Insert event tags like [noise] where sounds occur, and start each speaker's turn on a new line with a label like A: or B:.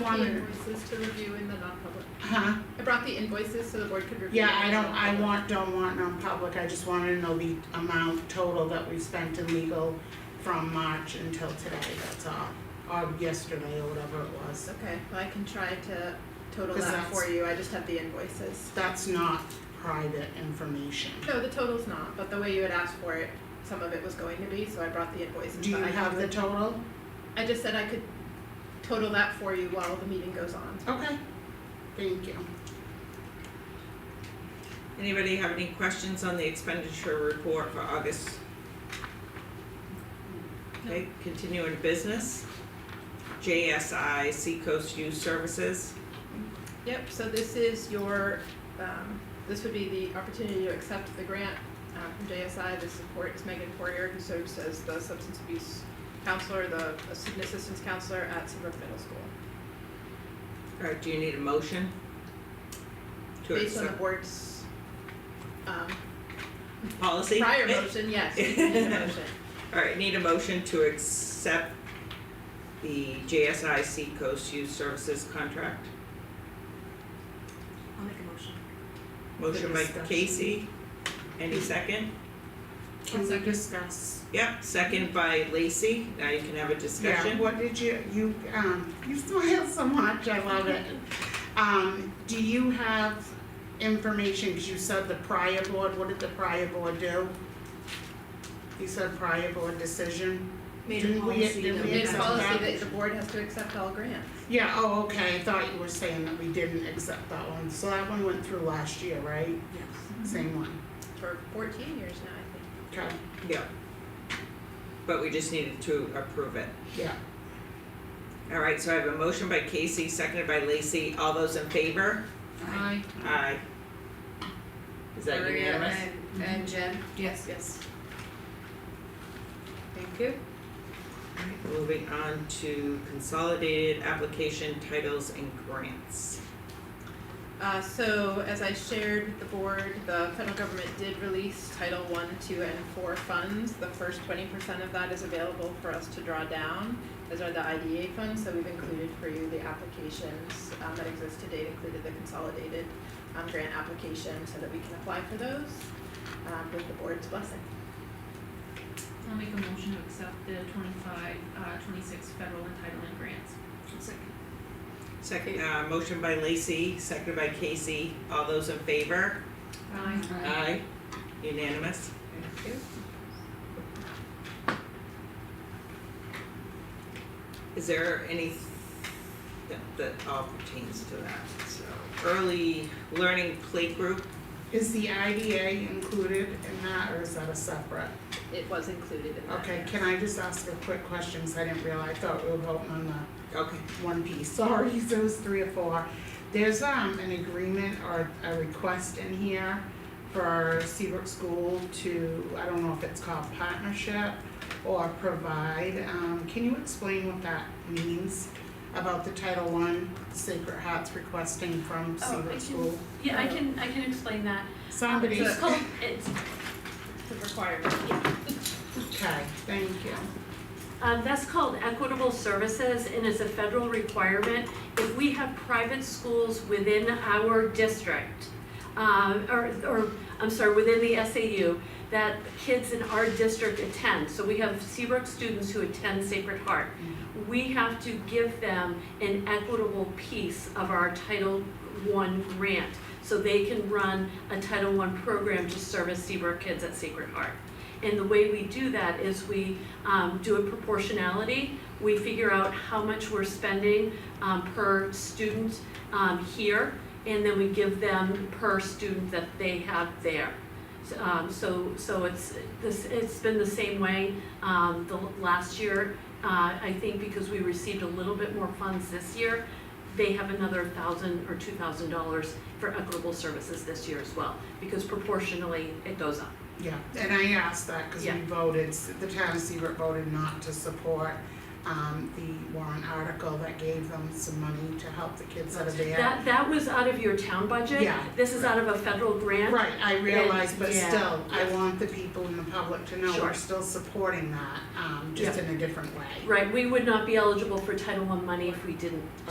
A: wanted-
B: Invoices to review in the non-public.
A: Huh?
B: I brought the invoices so the board could review.
A: Uh-huh. Yeah,
B: them
A: I
B: in non-public.
A: don't, I want, don't want non-public, I just wanted to know the amount total that we spent in legal from March until today, that's all. Or yesterday or whatever it was.
B: Okay, well, I can try to total
A: Because
B: that for
A: that's-
B: you, I just have the invoices.
A: That's not private information.
B: No, the total's not, but the way you had asked for it, some of it was going to be, so I brought the invoices.
A: Do you
B: but I
A: have the
B: could-
A: total?
B: I just said I could total that for you while the meeting goes on.
A: Okay, thank you.
C: Anybody have any questions on the expenditure report for August? Okay, continuing business. JSI Seacoast Youth Services.
B: Yep, so this is your, um, this would be the opportunity to accept the grant, uh, from JSI, the support is Megan Poirier, who serves as the substance abuse counselor, the uh, student assistance counselor at Seabrook Middle School.
C: All right, do you need a motion? To
B: Based on the
C: accept
B: board's, um,
C: policy?
B: prior motion,
C: [laughs]
B: yes, we need a motion.
C: All right, need a motion to accept the JSI Seacoast Youth Services contract.
D: I'll make a motion.
C: Motion by
A: discussion.
C: Casey. Any second?
A: Can we discuss?
C: Yep, second by Lacey. Now you can have a discussion.
A: Yeah, what did you, you, um, you smile so much, I love it. Um, do you have information, cause you said the prior board, what did the prior board do? You said prior board decision?
D: Made
A: Didn't
D: a
A: we-
D: policy
A: didn't
D: that
A: we
D: [laughs] we
B: It's
A: accept
D: have.
B: policy that the board has to accept all grants.
A: Yeah, oh, okay, I thought you were saying that we didn't accept that one, so that one went through last year, right?
D: Yes.
B: Mm-hmm.
A: Same one,
B: for fourteen years now, I think.
A: okay,
C: Yeah. But we just needed to approve it.
A: yeah,
C: All right, so I have a motion by Casey, seconded by Lacey. All those in favor?
A: Aye.
C: Aye. Is that unanimous?
D: And, and Jen? Yes.
B: Yes. Thank you.
C: Moving on to consolidated application titles and grants.
B: Uh, so as I shared with the board, the federal government did release Title One, Two, and Four funds. The first twenty percent of that is available for us to draw down, as are the IDA funds, so we've included for you the applications um, that exist to date, included the consolidated um, grant application, so that we can apply for those um, with the board's blessing.
E: I'll make a motion to accept the twenty-five, uh, twenty-six federal entitlement grants.
C: Second, uh, motion by Lacey, seconded by Casey. All those in favor?
E: Aye.
C: Aye. Unanimous?
B: Thank you.
C: Is there any, that, that all pertains to that, so. Early learning play group,
A: Is the IDA included in that, or is that a separate?
B: It was included in that.
A: Okay,
B: yes.
A: can I just ask a quick question, 'cause I didn't realize, I thought we were voting on the
C: okay.
A: one piece, [laughs] sorry, so it's three or four. There's um an agreement or a request in here for Seabrook School to, I don't know if it's called partnership or provide, um, can you explain what that means? About the Title One Sacred Hearts requesting from
E: Oh, I
A: Seabrook
E: can-
A: School,
E: Yeah, I can, I can explain that.
A: somebody,
E: It's
A: okay,
E: called, it's,
B: The requirement.
A: thank you,
E: um, that's called equitable services and is a federal requirement. If we have private schools within our district, um, or, or, I'm sorry, within the SAU, that kids in our district attend, so we have Seabrook students who attend Sacred Heart. We have to give them an equitable piece of our Title I grant, so they can run a Title I program to service Seabrook kids at Sacred Heart. And the way we do that is we um, do a proportionality. We figure out how much we're spending um, per student um, here, and then we give them per student that they have there. So, um, so, so it's, this, it's been the same way, um, the l- last year. Uh, I think because we received a little bit more funds this year, they have another thousand or two thousand dollars for equitable services this year as well, because proportionally, it goes up.
A: yeah, and I asked that because we
E: Yeah.
A: voted, the town of Seabrook voted not to support um the warrant article that gave them some money to help the kids out of there.
E: That, that was out of your town budget.
A: Yeah.
E: This is out of a federal grant.
A: Right, I realize, but
E: yeah,
A: still, I
E: yeah.
A: want the people in the public to know we're
E: Sure.
A: still supporting that, um, just in a different way.
E: Right, we would not be eligible for Title I money if we didn't